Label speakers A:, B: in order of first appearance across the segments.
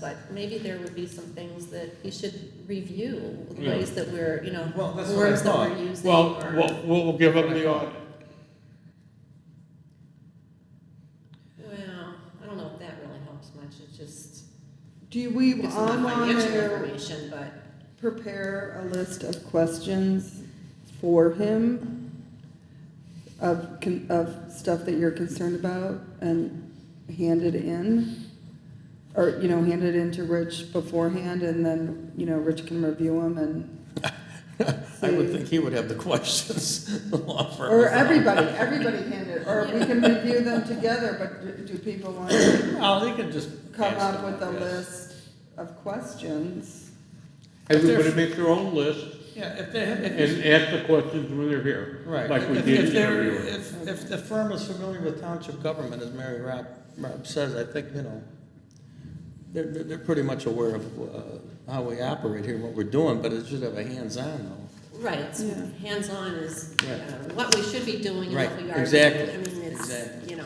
A: But maybe there would be some things that he should review, the
B: Yeah.
A: ways that we're, you know,
C: Well, that's what I
A: words that
C: thought.
A: we're using.
B: Well,
A: or-
B: we'll, we'll give them the audit.
A: Well, I don't know if that really helps much, it just
D: Do we,
A: gives them
D: I'm
A: the
D: on
A: financial
D: there,
A: information, but.
D: prepare a list of questions for him of, con- of stuff that you're concerned about and hand it in? Or, you know, hand it in to Rich beforehand and then, you know, Rich can review them and.
C: I would
D: see.
C: think he would have the questions. the law firm
D: Or
C: is on.
D: everybody, everybody hand it, or we can review them together, but do do people want to
C: Oh, they could just.
D: come
C: ask
D: up
C: them,
D: with a
C: yes.
D: list of questions?
B: Everybody make their own list
E: Yeah, if they, have- if, it's-
B: and ask the questions when they're here.
E: right.
B: Like we
E: If-
B: did
E: if
B: in
E: they're-
B: everywhere.
E: If, if the firm is familiar with township government, as Mary Rob, Rob says, I think, you know, they're, they're, they're pretty much aware of, uh, how we operate here, what we're doing, but it should have a hands-on
A: Right, it's
D: Yeah.
A: hands-on is uh,
E: Right.
A: what we should be doing and
E: Right,
A: what we are doing.
E: exactly,
A: I mean, it's,
E: exactly.
A: you know,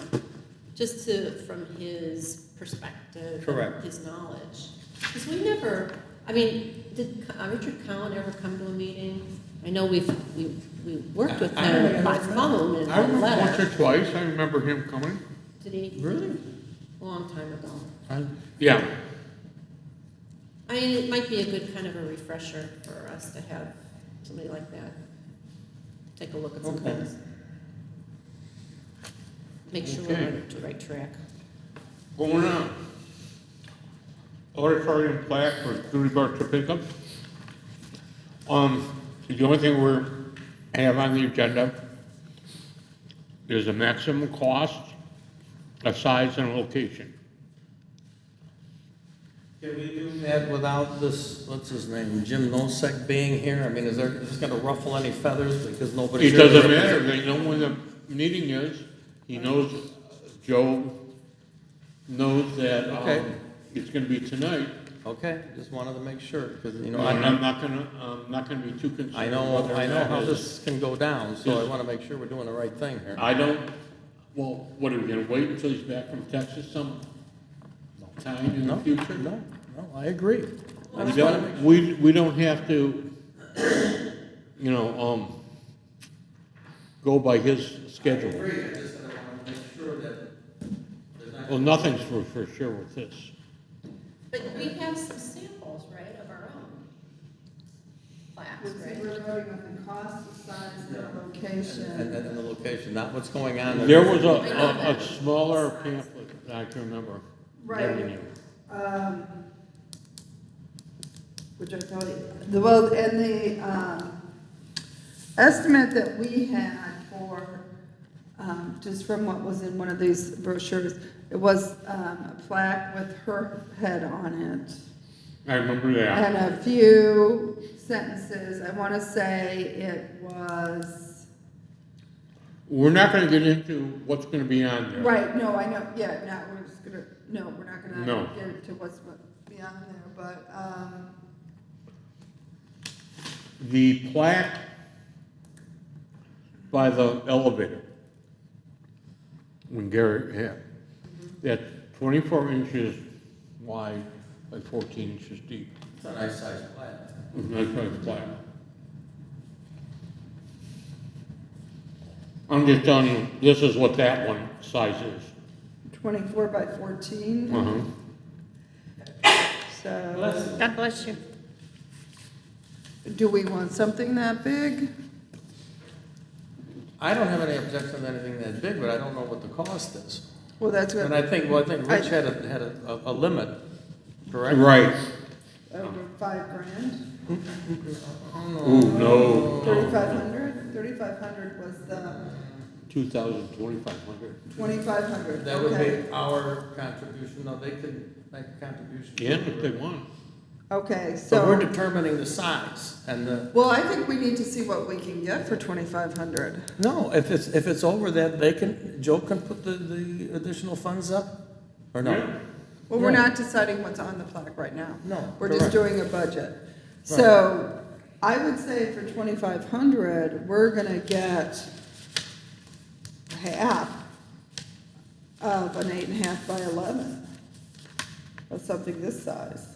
A: just to, from his perspective.
E: Correct.
A: His knowledge. Because we never, I mean, did uh, Richard Cowan ever come to a meeting? I know we've, we, we worked with
B: I- I
A: him by phone and
B: I
A: by
B: remember once or
A: letter.
B: twice, I remember him coming.
A: Did
E: though.
A: he,
E: Really?
A: a long time ago.
E: I,
B: Yeah,
A: I mean, it might be a good kind of a refresher for us to have somebody like that take a look at some
E: Okay.
A: things. Make sure we're
B: Okay.
A: on the right track.
B: going on. Auditorium plaque for duty bar to pick up. Um, the only thing we're, have on the agenda is the maximum cost, a size and a location.
E: Can we do that without this, what's his name, Jim Nosek being here? I mean, is there, is this gonna ruffle any feathers because nobody's
B: It
E: here? to
B: doesn't matter,
E: represent-
B: they know when the meeting is, he knows, Joe knows that,
E: Okay.
B: um, it's gonna be tonight.
E: Okay, just wanted to make sure, because, you know,
B: And I'm
E: I,
B: not gonna, I'm not gonna be too concerned.
E: I know,
B: whether or
E: I know
B: not
E: how
B: it's-
E: this can go down, so I
B: Yes.
E: wanna make sure we're doing the right thing here.
B: I don't, well, what, are we gonna wait until he's back from Texas some time in the
E: No,
B: future?
E: no, no, I agree. I
B: We
E: just wanna make
B: don't, we, we don't have to, you know, um, go by his schedule.
E: agree, I just wanna make sure that there's not.
B: Well, nothing's for, for sure with this.
A: But we have some samples, right, of our own plaques,
D: We're voting on the cost, the size, the
E: And,
D: location.
E: and the location, not what's going on.
B: There was a, a, a smaller pamphlet that I can remember.
D: Right. um, Which I thought, the, well, and the, um, estimate that we had for, um, just from what was in one of these brochures, it was, um, a plaque with her head on it.
B: I remember that.
D: And a few sentences, I wanna say it was,
B: We're not gonna get into what's gonna be on there.
D: right, no, I know, yeah, no, we're just gonna, no, we're not
B: No.
D: gonna get into what's beyond there, but, um,
B: The plaque by the elevator. When Gary, yeah, that's twenty-four inches wide by fourteen inches deep.
E: It's a nice sized plant.
D: Mm-hmm.
B: That's why it's plaque. I'm just telling you, this is what that one size is.
D: twenty-four by fourteen,
B: Uh-huh.
D: so,
A: God bless you.
D: do we want something that big?
E: I don't have any objection to anything that big, but I don't know what the cost is.
D: Well, that's
E: And
D: what,
E: I think, well, I think
D: I-
E: Rich had a, had a, a- a limit, correct?
B: Right.
D: over oh, five grand,
B: Ooh, no.
D: thirty-five hundred, thirty-five hundred was the,
B: Two thousand, twenty-five hundred.
D: twenty-five hundred,
E: That would
D: okay.
E: be our contribution, no, they could make a contribution.
B: Yeah, if they want.
D: Okay, so.
E: So we're determining the size and the.
D: Well, I think we need to see what we can get for twenty-five hundred.
E: No, if it's, if it's over that, they can, Joe can put the, the additional funds up, or
B: Yeah.
E: no?
D: Well, we're
E: Right.
D: not deciding what's on the plaque right now.
E: No,
D: We're just
E: correct.
D: doing a budget. So I would say for twenty-five hundred, we're gonna get half of an eight and a half by eleven. of something this size.